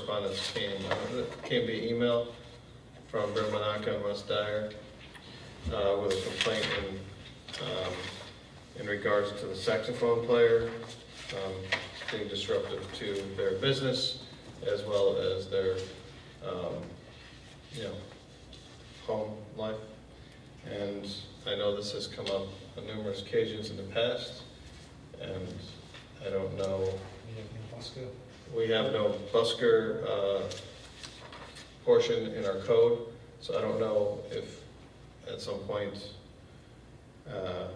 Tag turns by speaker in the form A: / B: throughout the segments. A: correspondence came, uh, it came via email from Bill Monaco and Russ Dyer uh, with a complaint in, um, in regards to the saxophone player um, being disruptive to their business as well as their, um, you know, home life. And I know this has come up on numerous occasions in the past, and I don't know we have no busker uh, portion in our code, so I don't know if at some point, uh,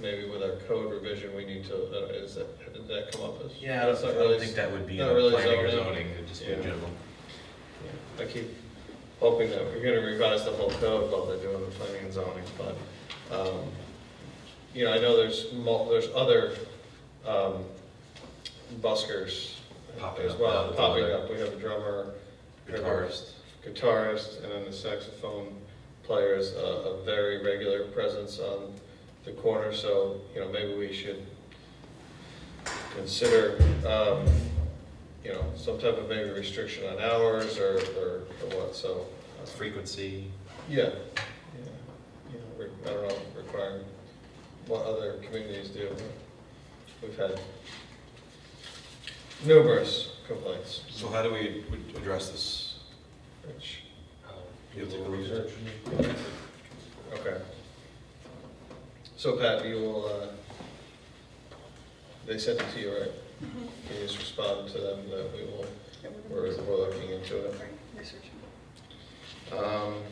A: maybe with our code revision, we need to, uh, is that, did that come up as?
B: Yeah, I
A: That's
B: don't,
A: not
B: I
A: really-
B: don't think that would be in
A: not really
B: planning or
A: zoning.
B: zoning, it'd just be
A: Yeah.
B: general.
A: I keep hoping that we're gonna revise the whole code while they're doing the planning and zoning, but, um, you know, I know there's mul, there's other, um, buskers
B: Popping
A: as
B: up now
A: well,
B: with
A: popping
B: other-
A: up. We have a drummer,
B: Guitarist,
A: guitarist, and then the saxophone player is a, a very regular presence on the corner, so, you know, maybe we should consider, um, you know, some type of maybe restriction on hours or, or or what, so. uh,
B: frequency,
A: Yeah, yeah, you know, re- I don't know, requiring what other communities do. We've had numerous complaints,
C: So how do we would address this?
A: which,
C: Um, You have to go research.
A: okay. So Pat, you will, uh, they sent it to you, right? Can you just respond to them that we will,
D: Yeah,
A: we're,
D: we're gonna-
A: we're looking into it?
D: Sorry, researching.
A: Um,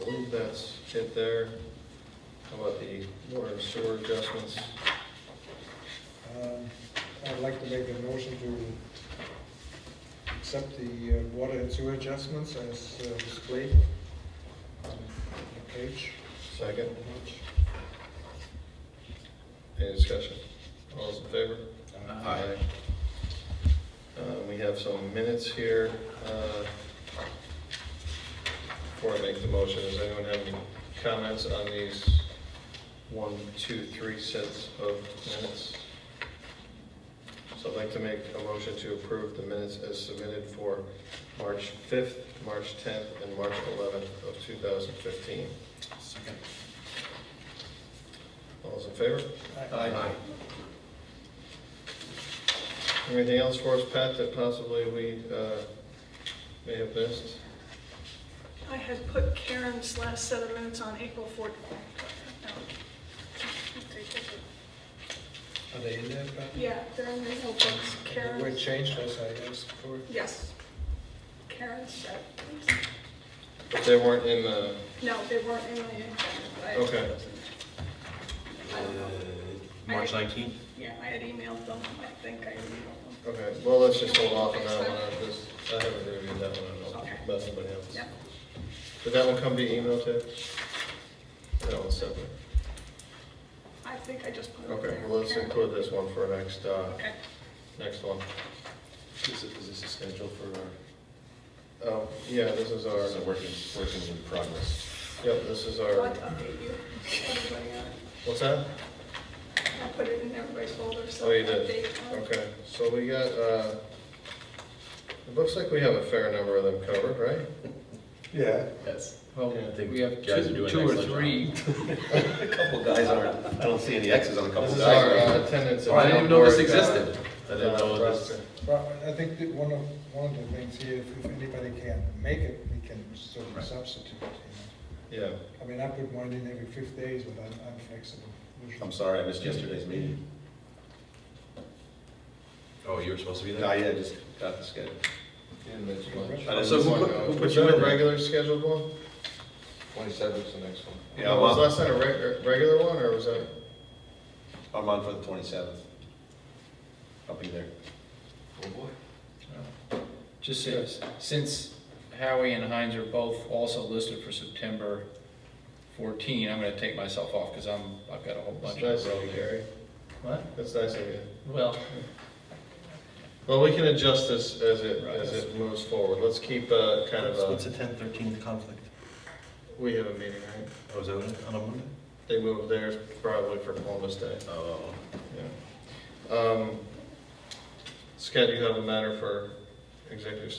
A: I believe that's it there. How about the water and sewer adjustments?
E: Um, I'd like to make a motion to accept the uh, water and sewer adjustments as uh, displayed on the page.
A: Second? Any discussion? All those in favor?
B: Aye.
A: Uh, We have some minutes here. uh, Before I make the motion, does anyone have any comments on these one, two, three sets of minutes? So I'd like to make a motion to approve the minutes as submitted for March 5th, March 10th, and March 11th of 2015.
C: Second.
A: All those in favor?
E: Aye.
A: Anything else for us, Pat, that possibly we uh, may have missed?
D: I had put Karen's last set of minutes on April 14th. No. It's April 14th.
E: Are they in there, Pat?
D: Yeah, they're in the notebooks.
E: They Were
D: Karen's,
E: changed as I asked for?
D: yes. Karen's set.
A: If they weren't in the,
D: No, they weren't in my agenda. but I-
A: Okay.
D: I don't
C: uh,
D: know.
B: March nineteenth?
D: Yeah, I had emailed them. I think I emailed them.
A: okay, well, let's just hold off on that one, I just, I haven't reviewed that one, I don't know
D: Okay.
A: about anybody else.
D: Yep.
A: Did that one come via email too? That one's separate.
D: I think I just put it
A: Okay,
D: there.
A: well, let's
D: Karen.
A: include this one for next, uh,
D: Okay.
A: next one.
C: Is it- is this a schedule for our,
A: Oh, yeah, this is our,
C: is it working, working in progress?
A: yep, this is
D: I'd
A: our,
D: like to update you. Everybody on it.
A: what's that?
D: I put it in everybody's folder, so.
A: Oh, you did?
D: update, um,
A: Okay, so we got, uh, it looks like we have a fair number of them covered, right?
E: Yeah.
B: Yes.
F: Well,
A: Yeah.
F: we have
B: Guys are
F: two,
B: doing
F: two or
B: excellent job.
F: three.
C: A couple guys aren't, I don't see any X's on a couple
A: This
C: guys.
A: is our uh, attendance. at
F: Oh, I didn't even know this
A: Board, uh,
F: existed.
B: I didn't know this,
E: Well, I think that one of, one of the things here, if if anybody can make it, we can sort of
B: Right.
E: substitute, you know.
A: Yeah,
E: I mean, I put mine in every fifth days, but I'm, I'm flexible. usually.
C: I'm sorry, I missed yesterday's meeting.
B: oh, you were supposed to be
C: No,
B: there?
C: yeah, I just got the schedule.
A: in this bunch.
C: I didn't
B: So who
C: want
B: put-
C: to go.
B: who put
A: Was
B: you
A: that a
B: in there?
A: regular scheduled one?
G: Twenty-seventh's the next one.
C: Yeah, I'm
A: Was
C: on,
A: last night a reg- a regular one, or was that,
C: I'm on for the twenty-seventh. I'll be there.
G: Oh, boy.
F: Just since, since Howie and Heinz are both also listed for September 14, I'm gonna take myself off because I'm, I've got a whole bunch
A: that's nice
F: of
A: of
F: row
A: you,
F: there.
A: Gary.
F: What?
A: That's nice of you.
F: Well,
A: Well, we can adjust this as it, as it moves forward. Let's keep uh, kind of a,
H: the 10th, 13th conflict?
A: we have a meeting, right?
B: Oh, is that what it?
H: On a Monday?
A: They moved theirs probably for Columbus Day.
B: Oh,
A: Yeah. Um, Scott, you have a matter for executive